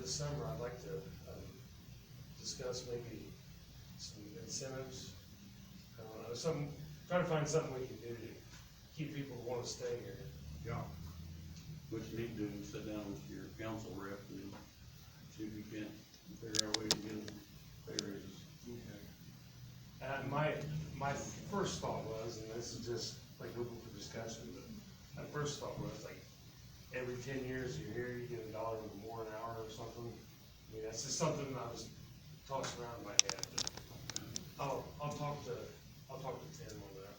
this summer, I'd like to, um, discuss maybe some incentives. I don't know, some, try to find something we can do to keep people who wanna stay here. Yeah. What you need to do is sit down with your council rep and see if you can figure out a way to get them pay raises. And Uh, my, my first thought was, and this is just like open for discussion, but my first thought was like, every ten years you're here, you get a dollar more an hour or something. I mean, that's just something I was tossing around in my head, but I'll, I'll talk to, I'll talk to Tim on that.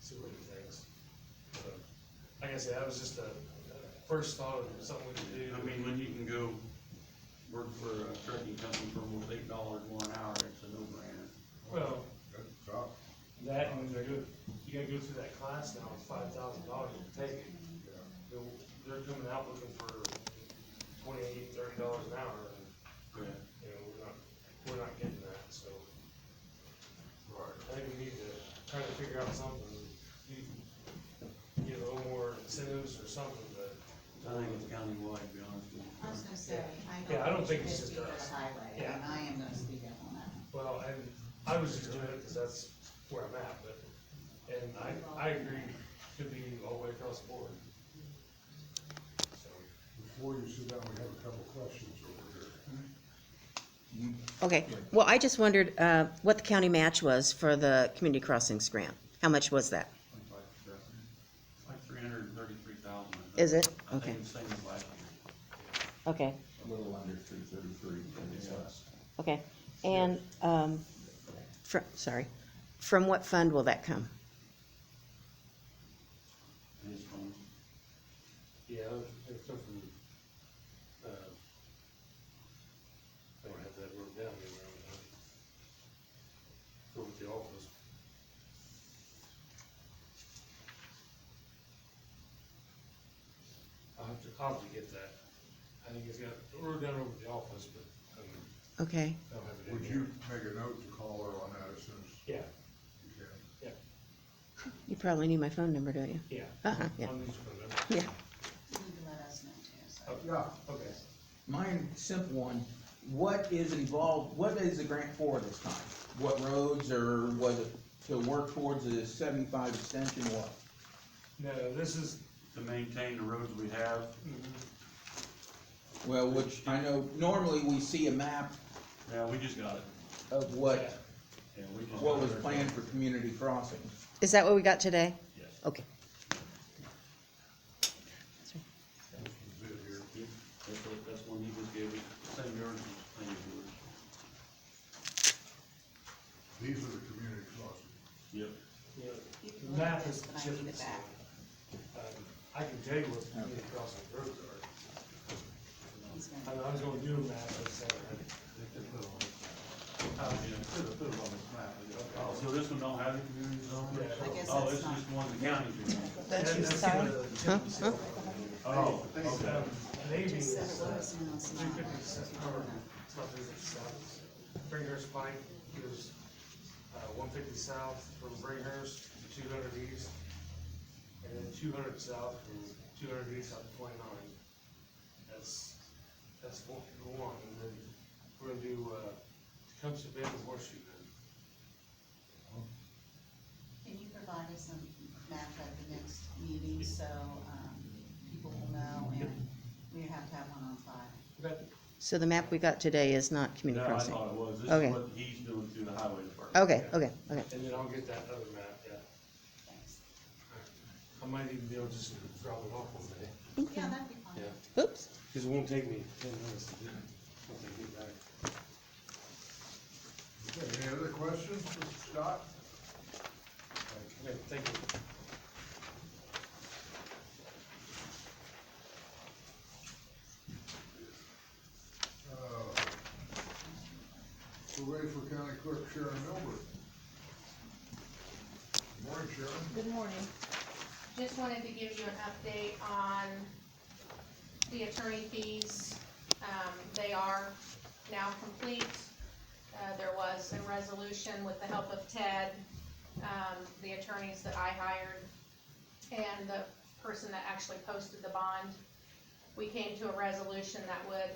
See what he thinks. So, Like I said, that was just a a first thought of something we could do. I mean, when you can go work for a trucking company for almost eight dollars more an hour, it's a no-brainer. Well, Good job. that, and they're good, you gotta go through that class now, it's five thousand dollars to take it. Yeah. They're, they're coming out looking for twenty-eight, thirty dollars an hour, and, Yeah. you know, we're not, we're not getting that, so. I think we need to try to figure out something, you, get a little more incentives or something, but. I think it's countywide, to be honest with I was you. gonna say, I Yeah, I don't don't think think you it's just should speak on us. the highway, Yeah. and I am gonna speak up on that. Well, and I was just doing it because that's where I'm at, but, and I, I agree, could be all the way across the board. So, Before you sit down, we have a couple questions over here. Okay, well, I just wondered uh, what the county match was for the community crossings grant. How much was that? It's Like three hundred and thirty-three thousand. Is it? I Okay, think it's same as last year. okay, A little under three thirty-three, but it's less. okay. And, um, from, sorry, from what fund will that come? And it's from, yeah, it's come from, uh, I don't have that word down here around Go with uh, the office. I'll have to, I'll have to get that. I think it's got, we're down over the office, but, um, Okay, I don't have it in Would here. you make a note to call her on that as soon as Yeah, you can? you probably need my phone number, don't you? yeah. Uh-huh, yeah, I'll need to remember. yeah. You need to let us know too, so. Yeah. Okay. Mine, simple one, what is involved, what is the grant for this time? What roads or was it to work towards the seventy-five extension or what? No, this is, to maintain the roads we have, Well, which I know normally we see a map yeah, we just got it. of what, Yeah, we just what got was it. planned for community crossings. Is that what we got today? Yes. Okay. Is it here? Yeah, That's, what- that's one he just gave me, same yard, same yours. These are the community crossings. Yep. you know, You The can look map at is this, but I need it different. back. Um, I can tell you what the community crossing roads are. He's gonna. I mean, I was gonna do a map, but I said, uh, Oh, So this one don't have the community zone? Yeah. I guess Oh, that's this is not- just one of the counties. That's your Huh? Huh? Oh, okay. um, Maybe Just it's, said uh, it was, and it's two not. fifty-six, or, it's not two fifty south. Bringhurst Pike goes, uh, one fifty south from Bringhurst to two hundred east. And then two hundred south from two hundred east up to twenty-nine. That's, that's one, one, and then we're gonna do, uh, Tecumseh Bend and Horseshoe Bend. Can you provide us a map at the next meeting, so, um, people will know, and we have to have one on file? So the map we got today is not No, community I crossing? thought it was, this Okay. is what he's doing through the highway department. Okay, okay, okay. And then I'll get that other map, yeah. Thanks. I might even be able to just drop it off one day. Yeah, that'd be fine. Yeah. Oops, Cause it won't take me ten minutes to do it, once I get back. Okay, any other questions for Scott? Okay, thank you. Uh, We're ready for County Clerk Sharon Milburn. Morning, Sharon. Good morning. Just wanted to give you an update on the attorney fees. Um, they are now complete. Uh, there was a resolution with the help of Ted, um, the attorneys that I hired, and the person that actually posted the bond. We came to a resolution that would